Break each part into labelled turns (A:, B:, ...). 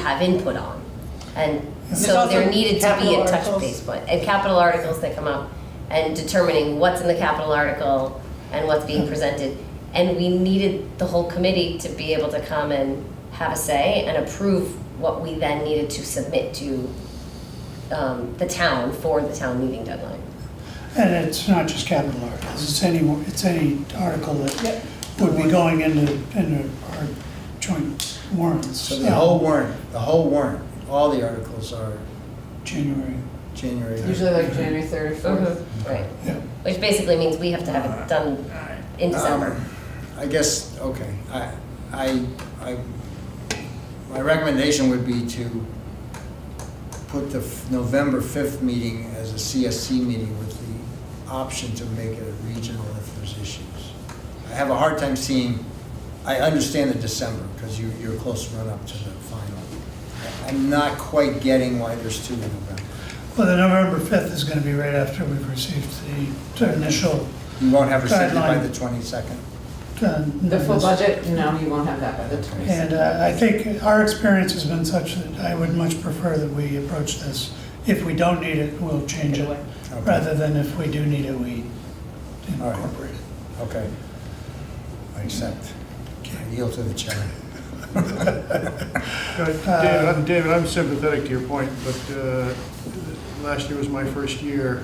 A: have input on. And
B: There's
A: so there
B: also
A: needed to be
B: capital
A: a touch
B: articles.
A: base point, and capital articles that come up, and determining what's in the capital article and what's being presented. And we needed the whole committee to be able to come and have a say and approve what we then needed to submit to um, the town for the town meeting deadline.
B: And it's not just capital articles, it's any, it's any article that would be going into, into our joint warrants.
C: So the whole warrant, the whole warrant, all the articles are
B: uh, January,
C: January.
D: Usually like January third or fourth.
A: Right,
B: yeah.
A: which basically means we have to have it done in December.
C: Um, I guess, okay, I, I, I, my recommendation would be to put the f- November fifth meeting as a CSC meeting with the option to make it a regional if there's issues. I have a hard time seeing, I understand the December, because you, you're a close run-up to the final. I'm not quite getting why there's two in November.
B: Well, the November 5th is going to be right after we've received the the initial.
C: You won't have rescinded by
B: Guideline.
C: the twenty-second?
B: uh,
D: The full
B: notice.
D: budget, no, you won't have that by the twenty-sixth.
B: And uh, I think our experience has been such that I would much prefer that we approach this. If we don't need it, we'll change it,
C: Okay.
B: rather than if we do need it, we
C: All right.
B: incorporate it.
C: Okay. I accept. I yield to the chair.
E: Uh, David, I'm- David, I'm sympathetic to your point, but uh, last year was my first year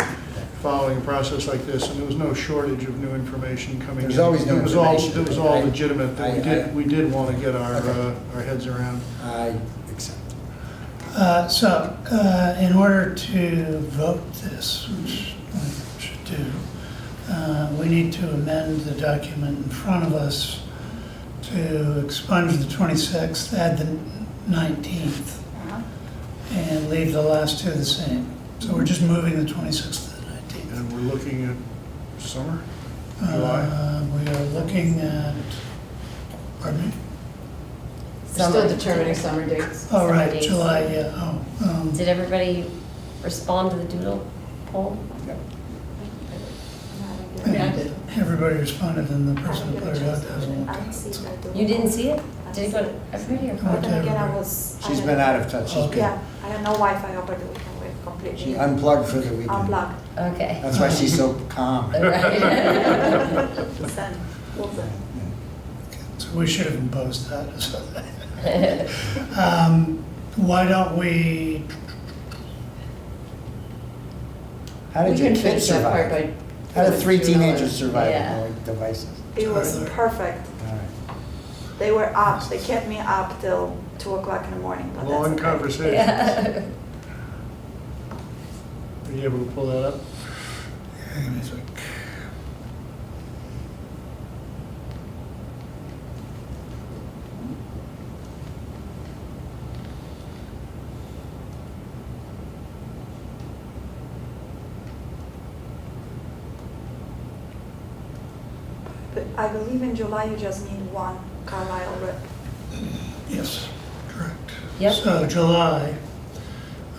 E: following a process like this, and there was no shortage of new information coming in.
C: There's always new
E: It was all-
C: information.
E: It was all
C: I-
E: legitimate, that
C: I-
E: we
C: I-
E: did, we did want to get our,
C: Okay.
E: uh, our heads around.
C: I accept.
B: Uh, So, uh, in order to vote this, which we should do, uh, we need to amend the document in front of us to expunge the 26th, add the 19th, and leave the last two the same. So we're just moving the 26th to the 19th.
E: And we're looking at summer? July.
B: Uh, We are looking at, pardon me?
D: Still determining summer dates.
B: All Oh, right,
A: dates.
B: July, yeah, oh. um,
A: Did everybody respond to the doodle poll?
D: I mean, I did.
B: Everybody responded and the person who put it out doesn't.
F: I didn't see her do
A: You didn't see it?
F: I
A: Did it go to everybody or?
B: Come
F: But
B: on,
F: then again, I
B: everybody.
F: was. I
C: She's
F: had-
C: been out of touch. this week.
F: Yeah, I had no Wi-Fi over the weekend, we completely.
C: She unplugged for the weekend.
F: Unplugged.
A: Okay.
C: That's why she's so calm.
A: Right.
F: Send.
B: So we should have imposed that. Um, Why don't we,
C: How
D: We
C: did your
D: can
C: kids
D: finish that part
C: survive?
D: by.
C: How did three teenagers survive
A: Yeah.
C: with no devices?
F: It was perfect,
C: All right.
F: they were up, they kept me up till two o'clock in the morning, but that's.
E: Long
F: okay.
E: conversation.
A: Yeah.
E: Are you able to pull that up?
F: But I believe in July you just need one Carlisle rep.
B: yes, correct.
A: Yep.
B: So July,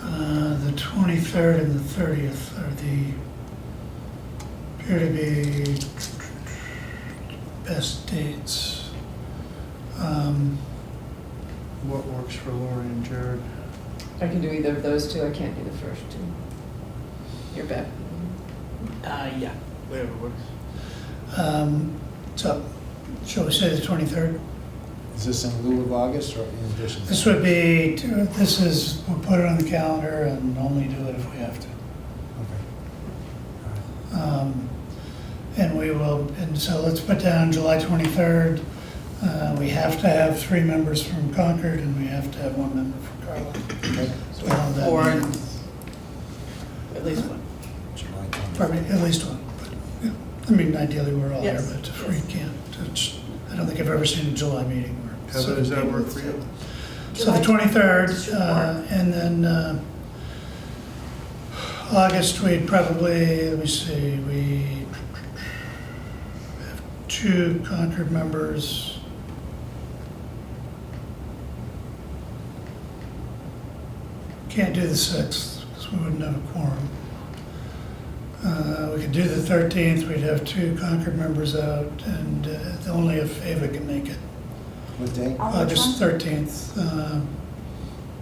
B: uh, the 23rd and the 30th are the, appear to be best dates. Um,
E: What works for Lori and Jared?
D: I can do either of those two, I can't do the first two. You're back.
E: Uh, yeah. Whatever works.
B: um, So, shall we say the 23rd?
C: Is this in lieu of August or in addition?
B: This would be, this is, we'll put it on the calendar and only do it if we have to.
C: Okay. All right.
B: Um, And we will, and so let's put down July 23rd. Uh, We have to have three members from Concord and we have to have one member from Carlisle.
C: Okay.
B: Well, that
D: Or
B: means-
D: At least one.
C: July 20th.
B: Pardon me, at least one. but, yeah. I mean, ideally, we're all here,
D: Yes.
B: but if we can't, it's- I don't think I've ever seen a July meeting where.
E: Heather, does that
B: seven
E: work
B: people-
E: for you?
B: So the twenty-third, uh, and then, uh, August, we'd probably, let me see, we have two Concord members. Can't do the sixth, because we wouldn't have a quorum. Uh, we could do the thirteenth, we'd have two Concord members out, and uh, only if Ava can make it.
C: What day?
B: Uh,
F: On which
B: August
F: one?
B: 13th, um,